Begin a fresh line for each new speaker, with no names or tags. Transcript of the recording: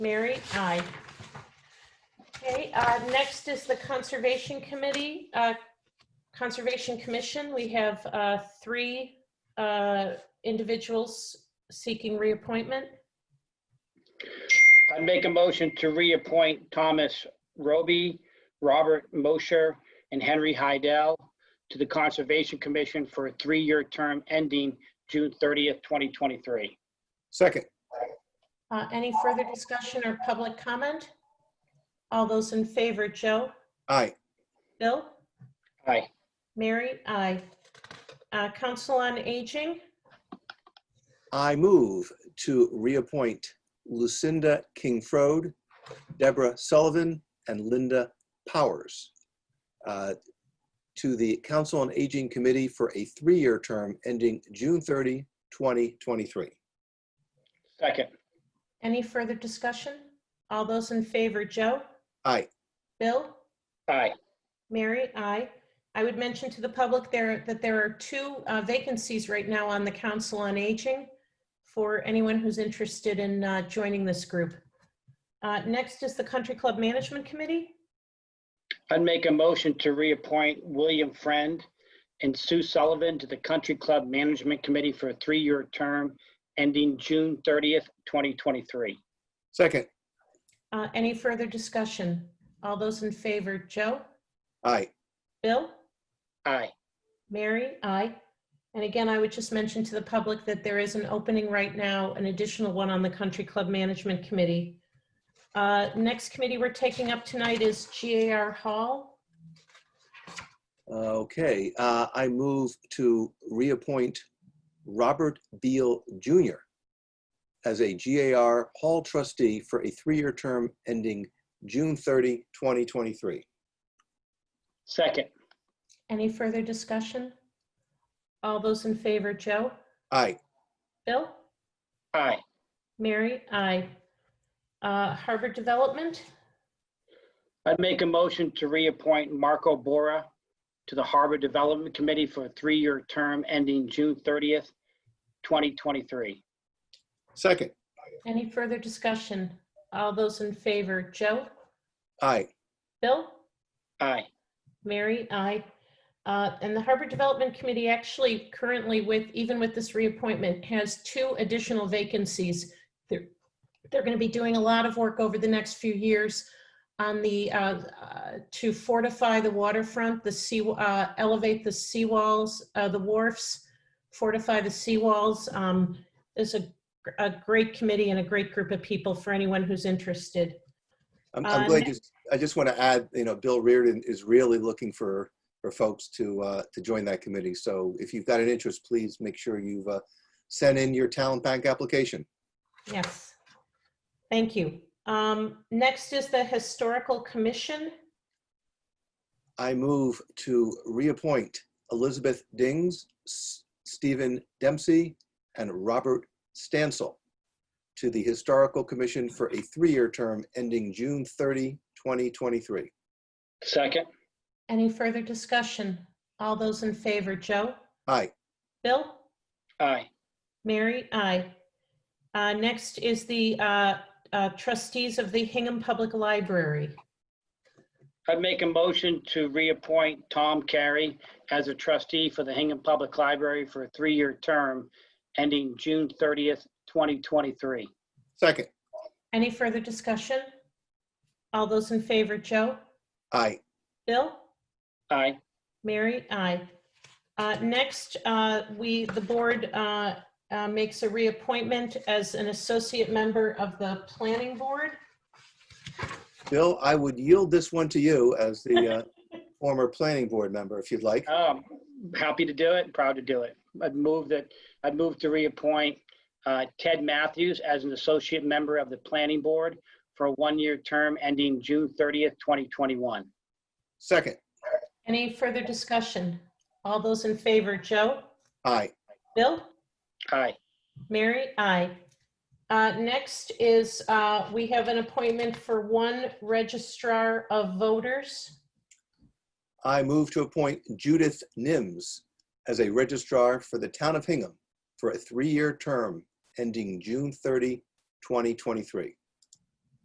Mary? Aye. Okay, uh, next is the Conservation Committee, uh, Conservation Commission. We have uh, three uh, individuals seeking reappointment.
I'd make a motion to reappoint Thomas Roby, Robert Mosher, and Henry Hydell to the Conservation Commission for a three-year term ending June 30th, 2023.
Second,
Uh, Any further discussion or public comment? All those in favor, Joe?
aye.
Bill?
Aye.
Mary? Aye. Uh, Council on Aging,
I move to reappoint Lucinda King-Frode, Deborah Sullivan, and Linda Powers uh, to the Council on Aging Committee for a three-year term ending June 30, 2023.
Second.
any further discussion? All those in favor, Joe?
Aye.
Bill?
Aye.
Mary, aye. I would mention to the public there that there are two uh, vacancies right now on the Council on Aging for anyone who's interested in uh, joining this group. Uh, Next is the Country Club Management Committee.
I'd make a motion to reappoint William Friend and Sue Sullivan to the Country Club Management Committee for a three-year term ending June 30th, 2023.
Second,
Uh, Any further discussion? All those in favor, Joe?
aye.
Bill?
Aye.
Mary? Aye. And again, I would just mention to the public that there is an opening right now, an additional one on the Country Club Management Committee. Uh, Next committee we're taking up tonight is GAR Hall.
Okay, uh, I move to reappoint Robert Beal Jr. as a GAR Hall trustee for a three-year term ending June 30, 2023.
Second.
Any further discussion? All those in favor, Joe?
Aye.
Bill?
Aye.
Mary? Aye. Uh, Harbor Development?
I'd make a motion to reappoint Marco Bora to the Harbor Development Committee for a three-year term ending June 30th, 2023.
Second.
Any further discussion? All those in favor, Joe?
Aye.
Bill?
Aye.
Mary? Aye. Uh, And the Harbor Development Committee actually currently with, even with this reappointment, has two additional vacancies. They're they're going to be doing a lot of work over the next few years on the, uh, uh, to fortify the waterfront, the sea, uh, elevate the seawalls, uh, the wharfs, fortify the seawalls. Um, There's a a great committee and a great group of people for anyone who's interested.
I'm, I'm
Uh,
glad you, I just want to add, you know, Bill Reardon is really looking for, for folks to, uh, to join that committee. So if you've got an interest, please make sure you've, uh, sent in your talent bank application.
Yes. Thank you. Um, Next is the Historical Commission.
I move to reappoint Elizabeth Dings, S- Stephen Dempsey, and Robert Stansel to the Historical Commission for a three-year term ending June 30, 2023.
Second.
Any further discussion? All those in favor, Joe?
Aye.
Bill?
Aye.
Mary? Aye. Uh, Next is the uh, uh, trustees of the Hingham Public Library.
I'd make a motion to reappoint Tom Carey as a trustee for the Hingham Public Library for a three-year term ending June 30th, 2023.
Second.
Any further discussion? All those in favor, Joe?
Aye.
Bill?
Aye.
Mary? Aye. Uh, Next, uh, we, the board uh, uh, makes a reappointment as an associate member of the Planning Board.
Bill, I would yield this one to you as the uh, former planning board member, if you'd like.
Um, happy to do it, proud to do it. I'd move that, I'd move to reappoint uh, Ted Matthews as an associate member of the planning board for a one-year term ending June 30th, 2021.
Second.
Any further discussion? All those in favor, Joe?
Aye.
Bill?
Aye.
Mary? Aye. Uh, Next is, uh, we have an appointment for one registrar of voters.
I move to appoint Judith Nims as a registrar for the town of Hingham for a three-year term ending June 30, 2023.